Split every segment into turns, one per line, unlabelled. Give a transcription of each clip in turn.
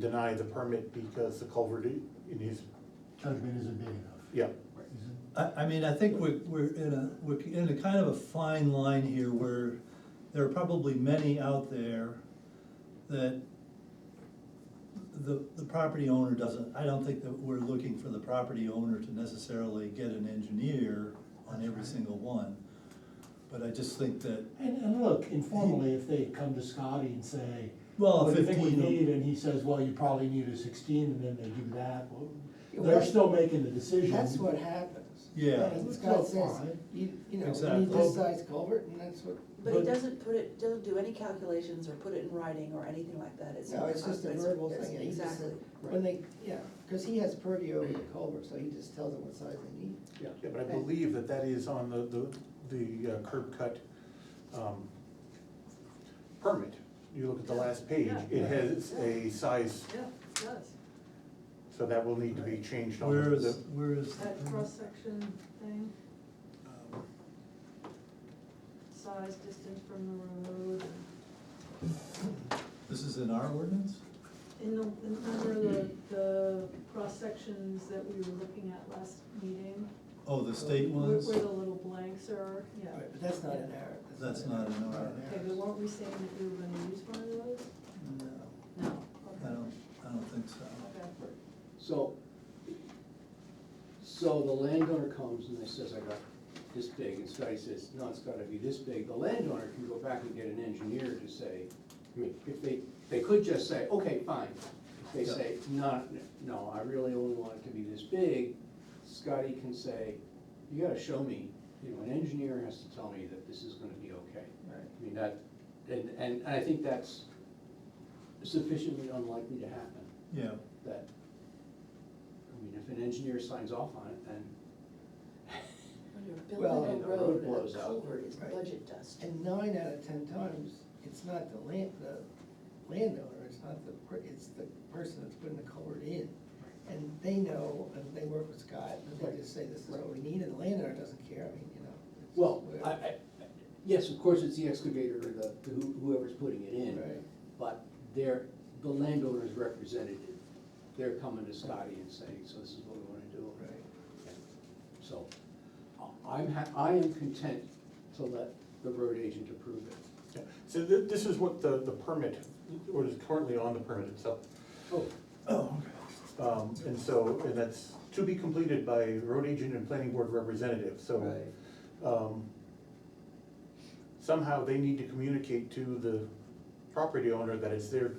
deny the permit because the culvert i- in his,
judgment isn't big enough.
yeah,
Is it?
I, I mean, I think we're, we're in a, we're in a kind of a fine line here where there are probably many out there that the, the property owner doesn't, I don't think that we're looking for the property owner to necessarily get an engineer on every
That's right.
single one. But I just think that,
And, and look, informally, if they come to Scotty and say,
Well,
what do you think we
15
need? And he says, well, you probably need a sixteen, and then they do that, well, they're
Well,
still making the decision.
That's what happens.
Yeah.
And
It's
Scott
not
says,
fine.
you, you know, we
Exactly.
need this size culvert, and that's what,
But he
But-
doesn't put it, doesn't do any calculations or put it in writing or anything like that, it's.
no, it's just a
it's-
verbal
it's-
thing, and he just
Exactly.
said, when they, yeah, cause he has purview over the culvert, so he just tells them what size they need.
yeah, but I believe that that is on the, the, the uh, curb cut, um, permit. You look at the last page, it
Yeah.
has a size,
Yeah, it does.
so that will need to be changed on the.
where is, where is? the
That
permit?
cross-section thing,
um,
size, distance from the road,
This is in our ordinance?
in the, in under the, the cross-sections that we were looking at last meeting.
Oh, the state
where-
ones?
Where the little blanks are, yeah.
Right, But that's not an error.
That's not an
Not
error.
Okay, but weren't we saying that we were gonna use one of those?
No.
I
No. Okay.
don't, I don't think so.
Okay.
So, so the landowner comes and they says, I got this big, and Scotty says, no, it's gotta be this big. The landowner can go back and get an engineer to say, I mean, if they, they could just say, okay, fine. If they say, not, no, I really only want it to be this big, Scotty can say, you gotta show me, you know, an engineer has to tell me that this is gonna be okay.
Right.
I mean, that, and, and I think that's sufficiently unlikely to happen
Yeah,
that, I mean, if an engineer signs off on it, then,
When you're
Well,
building
and
a
the road
road,
blows
a
up,
culvert is
right.
budget dust.
And nine out of ten times, it's not the land, the landowner, it's not the, per- it's the person that's putting the culvert in. And they know, and they work with Scott, and they just say, this is what we need, and the landowner doesn't care, I mean, you know. it's
well,
whatever.
I, I, yes, of course, it's the excavator or the, who- whoever's putting it in,
Right.
but they're, the landowner's representative, they're coming to Scotty and saying, so this is what we wanna do.
Right.
So, I- I'm ha, I am content to let the road agent approve it.
yeah. So thi- this is what the, the permit, what is currently on the permit itself.
Oh,
oh, okay.
Um, and so, and that's to be completed by road agent and planning board representative, so.
Right.
um, somehow they need to communicate to the property owner that it's their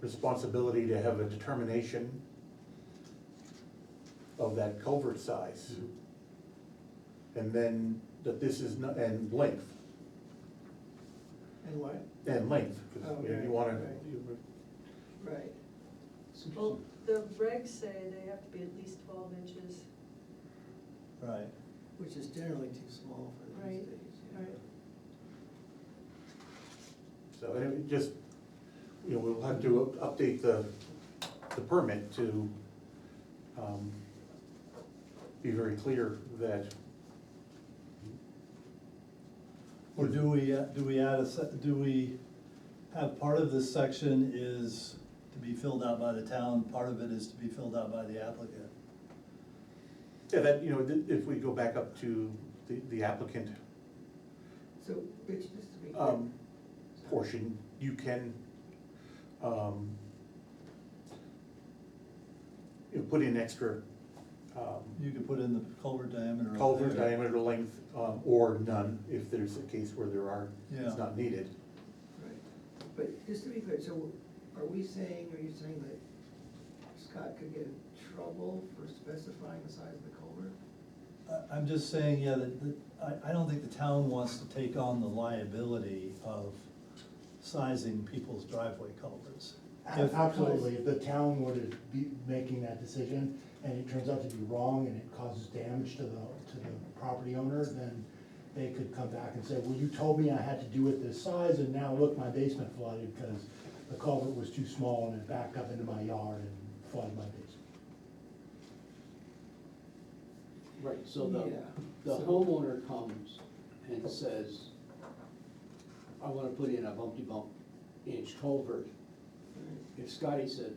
responsibility to have a determination of that culvert size. And then that this is, not- and length,
And what?
and length, 'cause you know, you wanna,
Okay, Oh, right.
you-
Right.
it's interesting.
Well, the regs say they have to be at least twelve inches,
Right,
Which is generally too small for these
Right,
days. yeah.
right.
so it just, you know, we'll have to up- update the, the permit to, um, be very clear that
or do we, uh, do we add a, se- do we have part of this section is to be filled out by the town, part of it is to be filled out by the applicant?
Yeah, that, you know, th- if we go back up to the the applicant
So, Rich, just to be clear.
um, portion, you can, um, you know, put in extra um,
You could put in the culvert diameter. up
culvert
there.
diameter length um, or none, if there's a case where there are,
Yeah.
it's not needed.
Right, but just to be clear, so are we saying, are you saying that Scott could get in trouble for specifying the size of the culvert?
I, I'm just saying, yeah, that, that, I, I don't think the town wants to take on the liability of sizing people's driveway culverts.
A- Absolutely, if the town were to be making that decision, and it turns out to be wrong, and it causes damage to the, to the property owner, then they could come back and say, well, you told me I had to do it this size, and now look, my basement flooded, because the culvert was too small, and it backed up into my yard and flooded my basement.
Right, so the,
Yeah,
the
so-
homeowner comes and says, I wanna put in a bumpy bump inch culvert, If Scotty said,